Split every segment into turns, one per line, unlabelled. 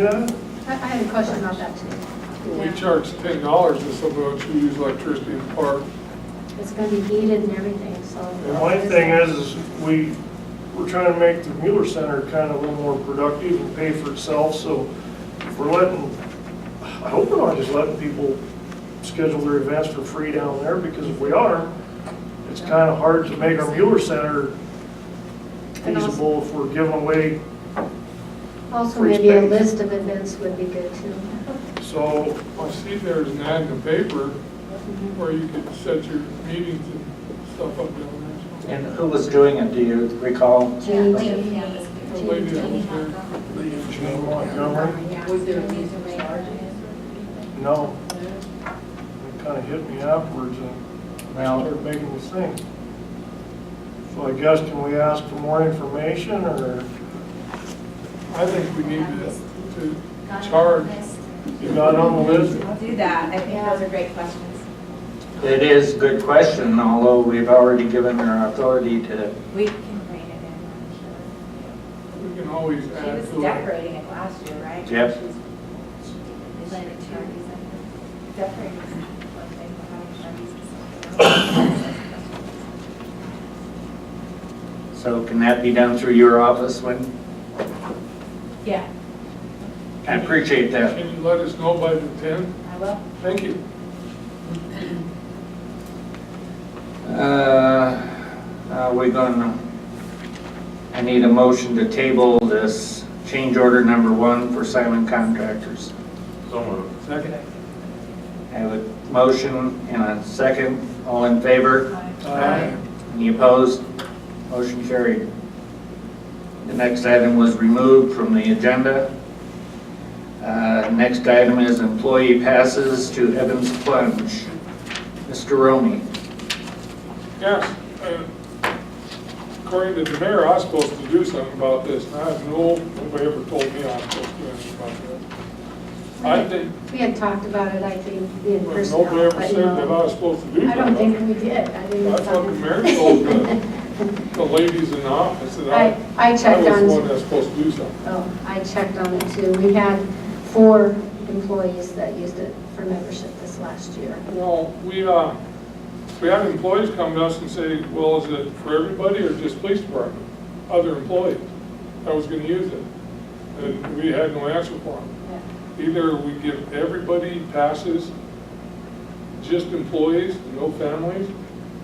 Yeah,
I I had a question about that too.
We
Yeah.
charge ten dollars to someone who use electricity in the park.
It's gonna be heated and everything, so.
Yeah.
my thing is, is we, we're trying to make the Mueller Center kind of a little more productive and pay for itself, so if we're letting, I hope we're not just letting people schedule their events for free down there, because if we are, it's kind of hard to make our Mueller Center
And also-
feasible if we're giving away,
Also,
Free
maybe a
space.
list of events would be good too.
so,
I see there's an ad in the paper where you could set your meetings and stuff up down there.
And who was doing it, do you recall?
Jeannie, Jeannie.
The lady that was there.
Montgomery,
Was there a reason they charged it?
no. It kind of hit me afterwards, and
Well,
start making this thing. So I guess can we ask for more information or
I think we need to, to charge.
you got on the list?
I'll do that. I think those are great questions.
it is a good question, although we've already given our authority to,
We can bring it in, I'm
We can always
sure. She
add
was
to it.
decorating it last year, right?
Yep.
She's- She did it charges and decorating something, having charges.
so can that be done through your office, When
Yeah,
I appreciate that.
Can you let us know by the tenth?
I will.
Thank you.
Uh, Are we gonna, I need a motion to table this change order number one for Simon Contractors.
Second.
I have a motion and a second, all in favor?
Aye.
Any opposed? Motion carried. The next item was removed from the agenda. Uh, Next item is employee passes to Evans Plunge. Mr. Romy.
Yes, uh, according to the mayor, I was supposed to do something about this, and I have no, nobody ever told me I was supposed to do anything about that. I think,
We had talked about it, I think, in
well,
person.
nobody ever
but,
said that I
no.
was supposed to do
I don't think
that.
we did. I didn't.
I thought the mayor told the, the ladies in the office that
I,
I,
I
I
checked
was the one
on,
that's supposed to do something.
oh, I checked on it too. We had four employees that used it for membership this last year.
Well, we, uh, we have employees come to us and say, well, is it for everybody or just police department? Other employees that was gonna use it, and we had no answer for them.
Yeah.
Either we give everybody passes, just employees, no families,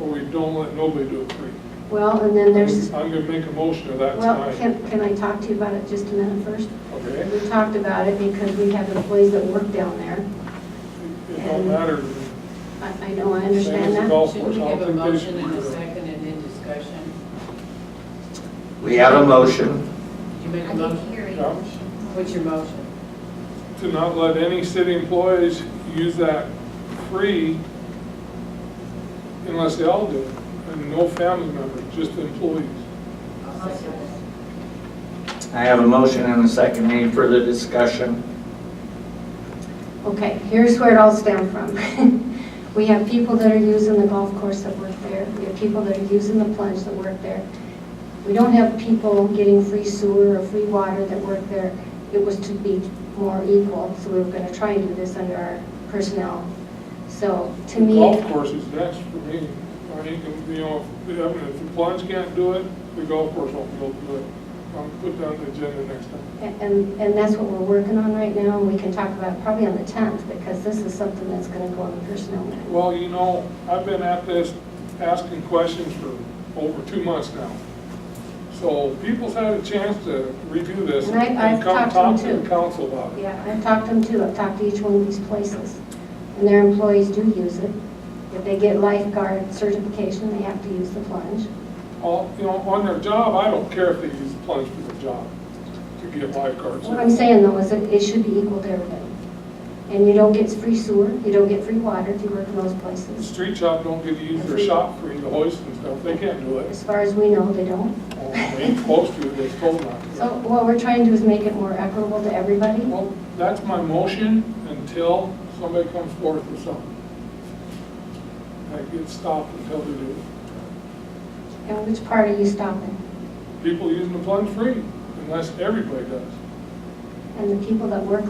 or we don't let nobody do it free.
Well, and then there's,
I'm gonna make a motion of that
well,
tonight.
can, can I talk to you about it just a minute first?
Okay?
We talked about it because we have employees that work down there.
It don't matter.
I, I know, I
Same as
understand
the
that.
golf
Should we
course. I
give a
don't think they should
motion and
do
a
that.
second and then discussion?
We have a motion.
Did you make a motion?
Yeah.
What's your motion?
To not let any city employees use that free unless they all do it, and no family members, just employees.
I'll second that.
I have a motion and a second. Any further discussion?
Okay, here's where it all stemmed from. We have people that are using the golf course that work there. We have people that are using the plunge that work there. We don't have people getting free sewer or free water that work there. It was to be more equal, so we were gonna try and do this under our personnel. So to me.
Golf course is next for me. I mean, you know, if, I mean, if the plunge can't do it, the golf course won't be able to do it. I'll put down the agenda next time.
And, and that's what we're working on right now, and we can talk about it probably on the 10th, because this is something that's going to go on the personnel matter.
Well, you know, I've been at this, asking questions for over two months now. So people's had a chance to review this
And I-
and
I've
come
talked to them
talk to
too.
the council about it.
Yeah, I've talked to them too, I've talked to each one of these places, and their employees do use it. If they get lifeguard certification, they have to use the plunge.
All, you know, on their job, I don't care if they use the plunge for their job to get lifeguards.
What I'm saying though is that it should be equal to everybody. And you don't get free sewer, you don't get free water if you work in those
The
places.
street shop don't get to use their shop free, the hoist and stuff, they can't do it.
As far as we know, they don't.
Well, They ain't supposed to, they're told not to.
So what we're trying to do is make it more equitable to everybody.
Well, that's my motion until somebody comes forth with something. I get stopped until they do.
And which part are you stopping?
People using the plunge free, unless everybody does.
and the people that work